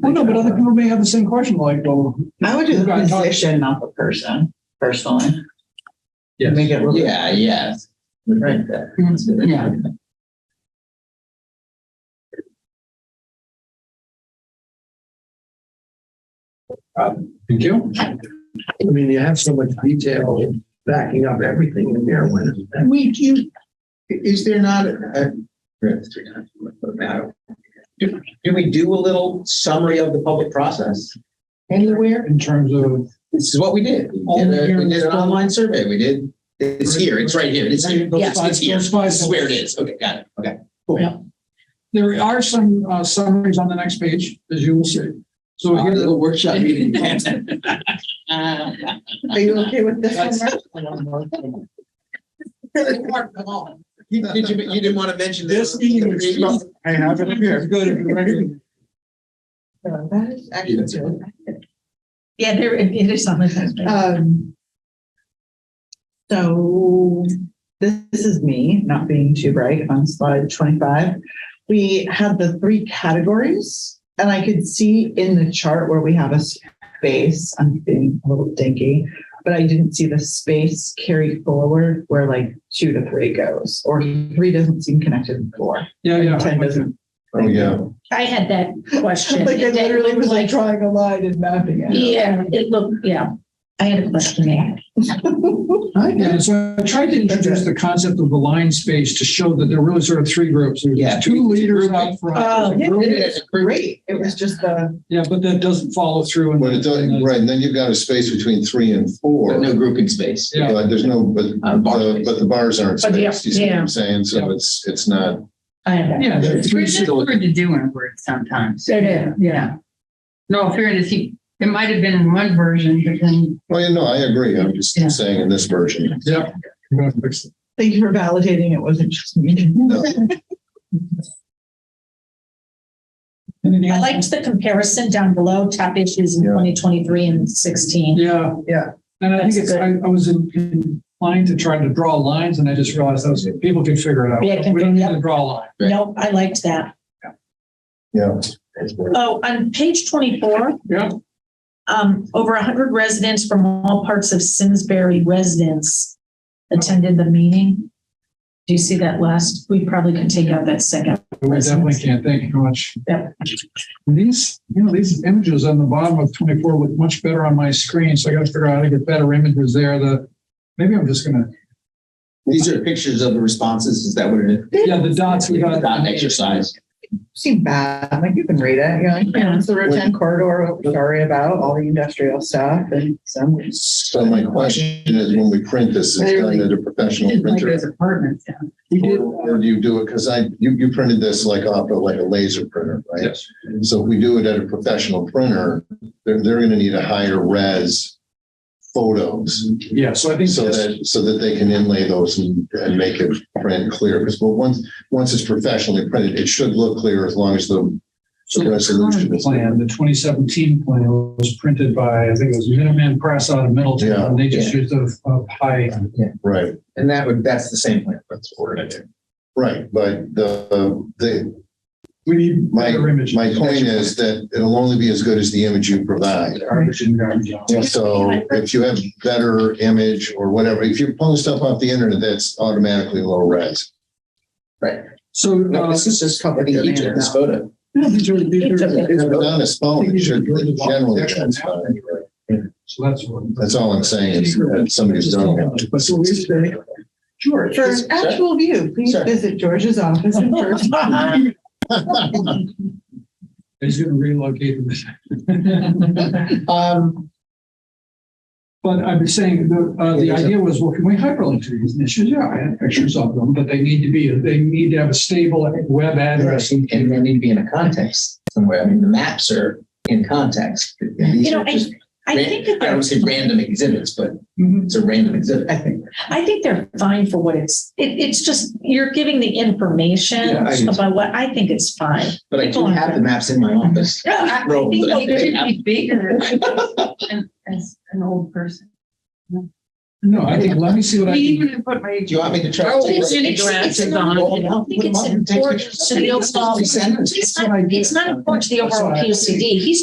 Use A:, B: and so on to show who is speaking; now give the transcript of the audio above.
A: Well, no, but other people may have the same question, like, well,
B: I would do the
A: Right, talk-
B: position, not the person, personally.
C: Yes,
B: Make it look.
D: Yeah, yes.
B: Right there.
A: Yeah.
C: thank you.
E: I mean, you have so much detail backing up everything in there when.
D: We, you, is there not a, do, do we do a little summary of the public process anywhere?
A: in terms of,
D: This is what we did. We did a- we did an online survey. We did, it's here, it's right here, it's here.
A: Those
D: It's-
A: five-
D: It's here.
A: those five-
D: This is where it is. Okay, got it. Okay.
A: there are some uh, summaries on the next page, as you will see. So
D: Our
A: here,
E: Uh,
D: little workshop meeting.
B: Are you okay with this one? Mark?
D: You- Did you, you didn't want to mention this?
A: this meeting is. I have it here. Good. if you're ready.
B: No, that is actually
D: Yeah.
B: good.
F: Yeah, there, it is on the.
B: Um. So this, this is me not being too bright on slide twenty-five. We had the three categories and I could see in the chart where we have a space, I'm being a little dinky. But I didn't see the space carried forward where like two to three goes, or three doesn't seem connected to four.
A: Yeah, yeah.
B: Ten doesn't.
C: Oh, yeah.
F: I had that question.
B: Like I
F: It
B: literally was like
F: looked like-
B: drawing a line and mapping it.
F: Yeah, it looked, yeah. I had a question there.
A: Yeah, so I tried to introduce the concept of the line space to show that there were really sort of three groups. There's
D: Yeah.
A: Two leaders out
B: Oh,
E: Uh,
A: front.
B: yeah,
A: there's
B: it
A: a group-
B: is great. It was just the.
A: Yeah, but that doesn't follow through. in
C: But it
A: the- in
C: does,
A: the-
C: right, and then you've got a space between three and four.
D: But no grouping space.
A: Yeah.
C: But there's no, but,
D: Uh, bar
C: the-
D: space.
C: but the bars aren't
F: But yeah,
C: spaced, you see what
F: yeah.
C: I'm saying? So
A: Yeah.
C: it's, it's not,
F: I had that.
A: Yeah. there are three
G: It's pretty
A: sort of-
G: hard to do in a word sometimes.
F: It is.
G: Yeah. No, fairness, he, it might have been in one version, but then
C: well, you know, I agree. I'm just
G: Yeah.
C: saying in this version.
A: Yeah.
B: Thank you for validating it wasn't just me.
A: Anything
F: I
A: else?
F: liked the comparison down below, top issues in
C: Yeah.
F: twenty twenty-three and sixteen.
A: Yeah.
B: Yeah.
A: And I think it's,
F: That's
A: I, I was in- inclined to try to draw lines and I just realized that was, people can figure it
F: Yeah,
A: out.
F: can
A: We don't need
F: figure it
A: to
F: out.
A: draw a line.
D: Right.
F: No, I liked that.
C: Yeah.
F: Oh, on page twenty-four,
A: Yeah.
F: um, over hundred residents from all parts of Simsbury residents attended the meeting. Do you see that last? We probably can take out that second.
A: We definitely can't. Thank you very much.
F: Yep.
A: These, you know, these images on the bottom of twenty-four look much better on my screen, so I gotta figure out how to get better images there. The, maybe I'm just gonna,
D: These are pictures of the responses. Is that what it is?
A: yeah, the dots we got.
D: Dot exercise.
B: Seemed bad. Like you can read it. You know, like, yeah, it's the Route 10 corridor. What we're sorry about all the industrial stuff and some.
C: So my question is, when we print this, is it done at a professional
G: didn't like those
C: printer?
G: apartments. yeah.
A: We did,
C: Or do you do it? Because I, you, you printed this like off of like a laser printer, right?
D: Yes.
C: So if we do it at a professional printer, they're, they're going to need a higher res photos.
A: yeah, so I think.
C: So that, so that they can inlay those and, and make it print clear, because, but once, once it's professionally printed, it should look clear as long as the
A: So the
C: resolution
A: current
C: is-
A: plan, the twenty seventeen plan was printed by, I think it was Minuteman Press out of Middleton,
C: Yeah.
A: and they just used a, a high.
C: Right,
D: And that would, that's the same plan. That's what we're gonna do.
C: right, but the, the,
A: We need
C: My-
A: better images.
C: my point is that it'll only be as good as the image you provide. So if you have better image or whatever, if you post stuff off the internet, that's automatically low res.
A: So,
D: No,
A: uh,
D: this is just covering
B: Yeah,
D: each of this photo.
A: yeah, these are- these
C: If
A: are-
C: it's on a phone, it should be generally. transparent.
A: So that's what.
C: That's all I'm saying is that somebody's done it.
A: But so we say,
B: George, for an actual view, please
C: Sure.
B: visit George's office in person.
A: he's gonna relocate them.
D: Um,
A: But I'm saying, the, uh, the idea was, well, can we hyperlink to these issues? Yeah, I have pictures of them, but they need to be, they need to have a stable web address.
D: and they need to be in a context somewhere. I mean, the maps are in context. You
F: You know, I- I think that Mm-hmm.
D: I
F: they're,
D: don't say random exhibits, but it's a random exhibit. I think.
F: I think they're fine for what it's, it, it's just, you're giving the information
D: Yeah, I do.
F: about what, I think it's fine.
D: But I do have the maps in my office.
F: I- I
D: Roll.
F: think
G: It
F: they-
G: should be bigger and- as an old person.
A: No, I think, let me see what I
G: We
A: can do.
G: even have put my.
D: Do you want me to try?
G: Oh,
D: to-
G: it's an interactive on it.
D: Roll it out,
F: think
D: put them
F: it's
D: up, and take
F: important
D: pictures.
F: to the overall-
D: Send them.
F: It's not, it's not important to the overall P O C D. He's